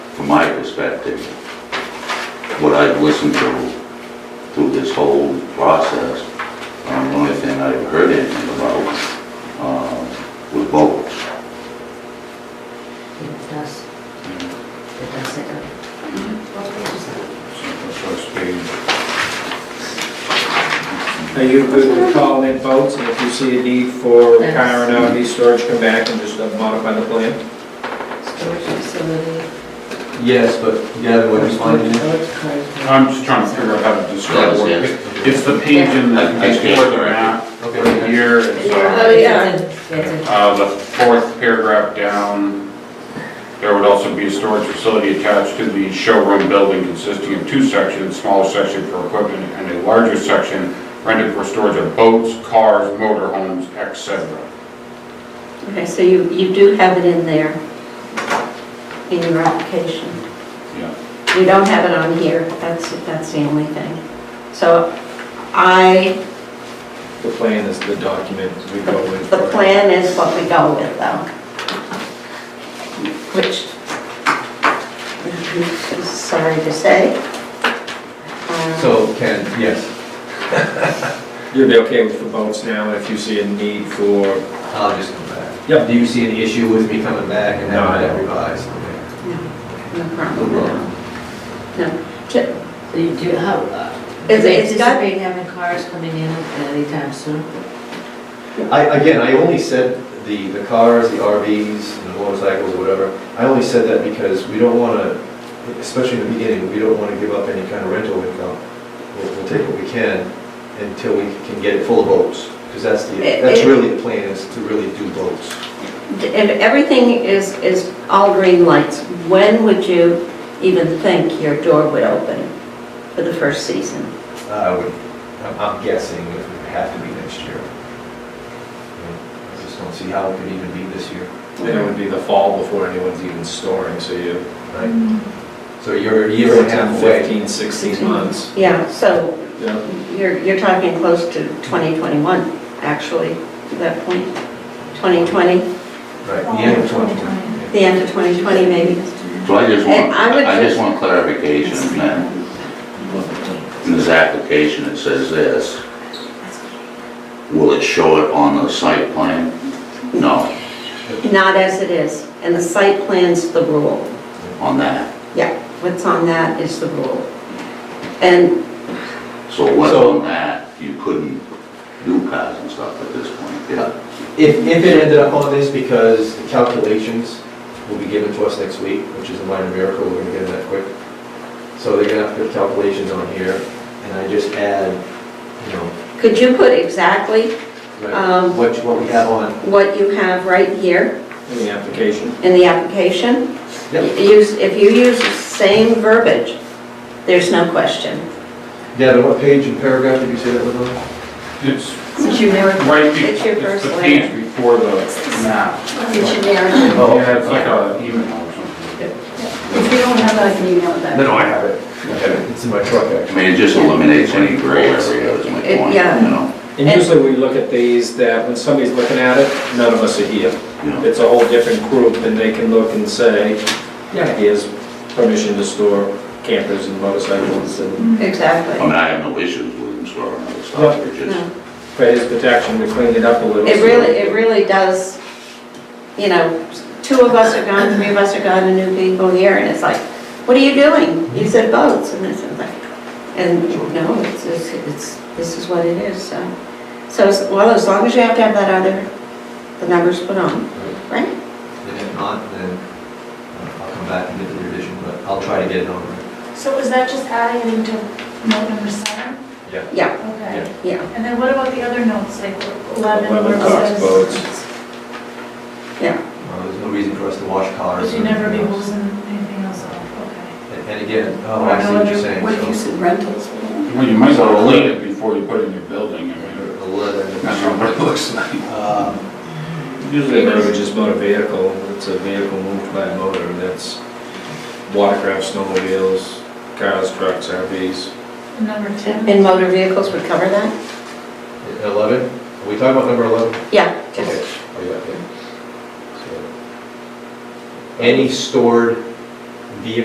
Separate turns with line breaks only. my perspective, what I've listened to through this whole process, um, the only thing I've heard anything about um, was votes.
It does, it does sit up.
Are you good with calling in votes, and if you see a need for carrying out these storage, come back and just uh, modify the plan?
Storage facility.
Yes, but gather what you're finding.
I'm just trying to figure out how to describe
That was
it.
it.
It's the page in the,
I- I
it's
can't
more than
correct
that,
Okay.
here, it's, uh,
Oh, yeah. It's a-
uh, the fourth paragraph down. There would also be a storage facility attached to the showroom building consisting of two sections, smaller section for equipment and a larger section rented for storage of boats, cars, motorhomes, etc.
Okay, so you, you do have it in there, in your application.
Yeah.
You don't have it on here, that's, that's the only thing. So I,
The plan is the document we go with.
the plan is what we go with though. Which, is sorry to say. Um,
So Ken, yes,
You'd be okay with the votes now, if you see a need for,
I'll just come back.
Yep.
Do you see any issue with me coming back and
No, I
having that
don't.
revised?
No problem. No. Ju-
So you do, how, uh, do
It's-
they
it's got-
anticipate having cars coming in anytime soon?
I, again, I only said the, the cars, the RVs, and the motorcycles or whatever, I only said that because we don't want to, especially in the beginning, we don't want to give up any kind of rental income. We'll, we'll take what we can until we can get it full of boats, because that's the,
It-
that's
it-
really the plan, is to really do boats.
And everything is, is all green lights. When would you even think your door would open for the first season?
I would, I'm- I'm guessing it would have to be next year. I just don't see how it could even be this year.
then it would be the fall before anyone's even storing, so you.
Right. So you're a year and a half away.
Fifteen, sixteen months.
Yeah, so
Yeah.
you're, you're talking close to 2021, actually, at that point. 2020,
Right, the end of 2020.
the end of 2020 maybe.
So I just want,
And I would
I just
just-
want clarification then. In this application, it says this. Will it show it on the site plan? No,
Not as it is. And the site plan's the rule.
on that.
Yeah, what's on that is the rule. And
So what's
So-
on that, you couldn't do cars and stuff at this point, yeah.
If, if it ended up on this, because the calculations will be given to us next week, which is a minor miracle, we're gonna get them that quick. So they're gonna have to put calculations on here, and I just add, you know,
could you put exactly
like,
Um,
what, what we have on.
what you have right here
In the application.
in the application. Use, if you use the same verbiage, there's no question.
Gavin, what page and paragraph did you say that was on?
It's
Since you never,
right, be-
It's your
it's
first
the
layer.
page before the map.
it's your narrative.
Oh,
Yeah, it's like an email or something.
If you don't have that, you know that.
No, I have it. I have it. It's in my truck,
I
actually.
mean, it just eliminates any gray area is my
It-
point,
yeah.
you know?
And usually we look at these, that when somebody's looking at it, none of us are here.
Yeah.
It's a whole different group, and they can look and say, yeah, he has permission to store campers and motorcycles and
I
Exactly.
mean, I have no issues with them storing other stuff, it's just,
No.
for his protection, we cleaned it up a little.
It
so-
really, it really does, you know, two of us are gone, three of us are gone, a new people here, and it's like, what are you doing? You said boats, and it's like, and no, it's, it's, it's- this is what it is, so. So, as- well, as long as you have to have that other, the numbers put on, right?
And if not, then uh, I'll come back and get the revision, but I'll try to get it on. there.
So was that just adding it into note number seven?
Yeah,
Okay.
yeah,
And then what about the other notes, like 11?
11 cars, boats.
yeah.
Uh, There's no reason for us to wash cars.
Because
or
you never be
anything else.
losing anything else off, okay.
And and again, oh, I see what you're saying.
What if you
so-
said rentals?
Well, you might want to lean it before you put it in your building, I mean,
A leather-
that's not what it looks like.
Um,
Usually motor is motor vehicle, it's a vehicle moved by a motor, and that's watercraft, snowmobiles, cars, trucks, RVs.
And Number 10?
And motor vehicles would cover that?
Eleven, are we talking about number eleven?
Yeah, just,
Okay. Oh, yeah, okay. So, Any stored